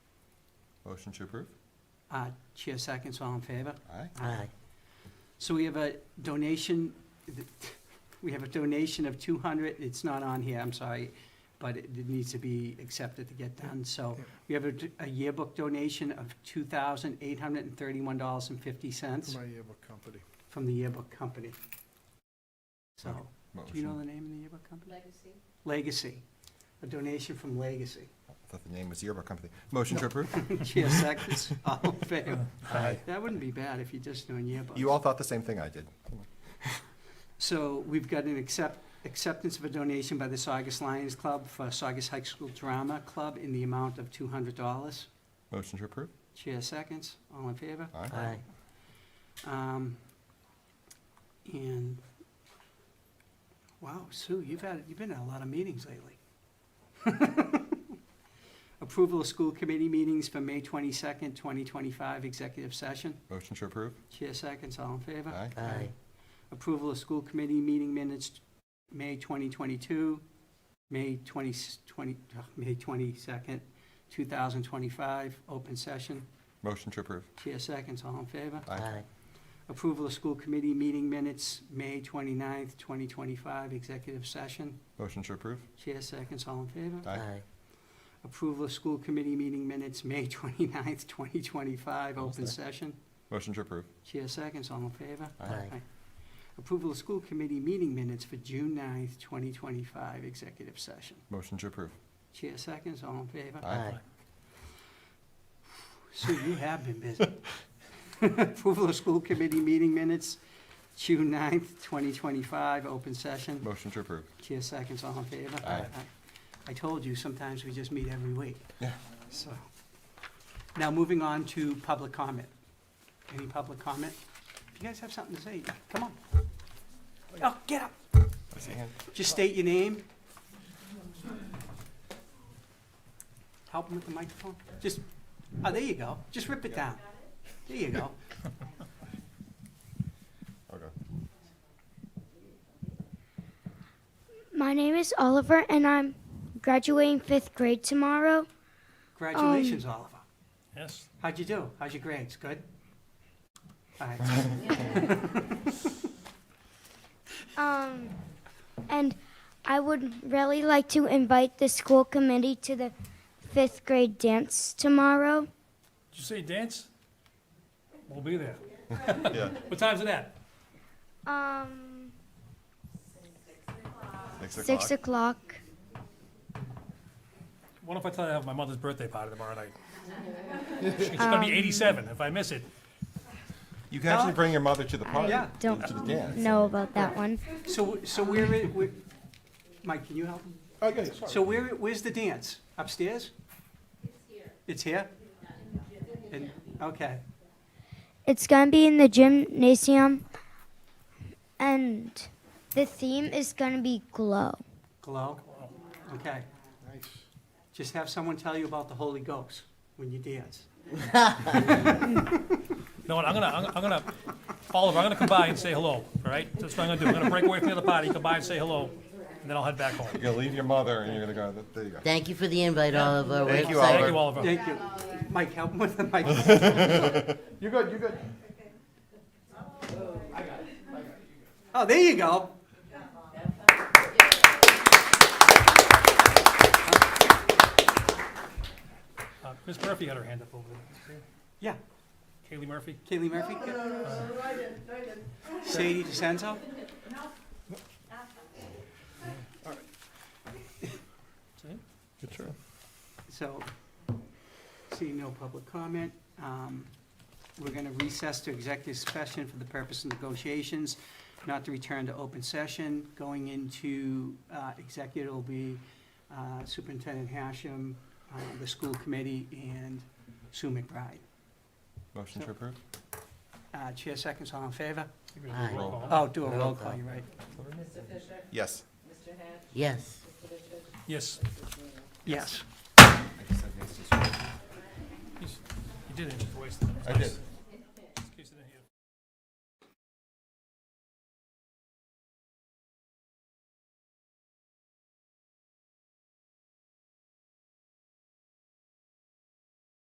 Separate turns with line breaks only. Motion to approve?
Uh, Chair seconds, all in favor?
Aye.
Aye.
So we have a donation, we have a donation of 200, it's not on here, I'm sorry, but it it needs to be accepted to get done. So we have a d- a yearbook donation of $2,831.50
My yearbook company.
from the yearbook company. So, do you know
Motion.
the name of the yearbook company?
Legacy.
Legacy, a donation from Legacy.
I thought the name was yearbook company. Motion to
No.
approve?
Chair seconds, all in favor?
Aye.
That wouldn't be bad if you're just doing yearbooks.
You all thought the same thing I did.
So we've got an accept, acceptance of a donation by the Saugus Lions Club for Saugus High School Drama Club in the amount of two hundred dollars.
Motion to approve?
Chair seconds, all in favor?
Aye.
Aye.
Um, and, wow, Sue, you've had, you've been at a lot of meetings lately. Approval of school committee meetings for May twenty-second, twenty twenty-five, executive session.
Motion to approve?
Chair seconds, all in favor?
Aye.
Aye.
Approval of school committee meeting minutes, May 2022, May 20, 20 ugh, May 22nd, 2025, open session.
Motion to approve?
Chair seconds, all in favor?
Aye.
Approval of school committee meeting minutes, May 29th, 2025, executive session.
Motion to approve?
Chair seconds, all in favor?
Aye.
Aye.
Approval of school committee meeting minutes, May 29th, 2025,
Almost
open
there.
session.
Motion to approve?
Chair seconds, all in favor?
Aye.
Approval of school committee meeting minutes for June 9th, 2025, executive session.
Motion to approve?
Chair seconds, all in favor?
Aye.
Sue, you have been busy. Approval of school committee meeting minutes, June 9th, 2025, open session.
Motion to approve?
Chair seconds, all in favor?
Aye.
I told you, sometimes we just meet every week.
Yeah.
So, now moving on to public comment. Any public comment? If you guys have something to say, come on. Oh, get up.
I see a hand.
Just state your name. Help him with the microphone. Just, oh, there you go. Just rip it down. There you go.
Okay.
My name is Oliver, and I'm graduating fifth grade tomorrow.
Congratulations, Oliver.
Yes,
How'd you do? How's your grades? Good? All right.
Um, and I would really like to invite the school committee to the fifth grade dance tomorrow.
did you say dance? We'll be there.
Yeah.
What time's it at?
Um,
Six
six
o'clock?
o'clock.
What if I tell you I have my mother's birthday party tomorrow night? She's gonna be eighty-seven if I miss it.
You can actually
No.
bring your mother to the party,
Yeah.
Don't
to the dance.
know about that one.
So, so where is, where- Mike, can you help him?
Oh,
Okay,
So where, where's the dance? Upstairs? It's here. It's here? And- Okay.
It's gonna be in the gymnasium, and the theme is gonna be glow.
Glow? Okay.
Nice.
Just have someone tell you about the Holy Ghost when you dance.
You know what, I'm gonna, I'm gonna- I'm gonna, Oliver, I'm gonna come by and say hello, all right? That's what I'm gonna do. I'm gonna break away from the other party, come by and say hello, and then I'll head back home.
You're gonna leave your mother and you're gonna go, there you go.
Thank you for the invite, Oliver. We're
Thank you,
excited.
Thank you, Oliver.
Thank you. Mike, help him with the mic.
You good, you good.
Oh, there you go.
Uh, Ms. Murphy had her hand up over there.
Yeah,
Kaylee Murphy?
Kaylee Murphy. Sadie DeSenzo.
See?
Good try.
So, seeing no public comment, um, we're going to recess to executive session for the purpose of negotiations, not to return to open session. Going into uh, executive will be uh, Superintendent Hashem, uh, the school committee, and Sue McBride.
Motion to approve?
Uh, Chair seconds, all in favor?
You're gonna do a roll
Aye.
call, huh?
Oh, do a roll call, you're right.
Yes.
Yes.
Yes,
Yes.
I guess I missed this one.
you did it, just wasted.
I did.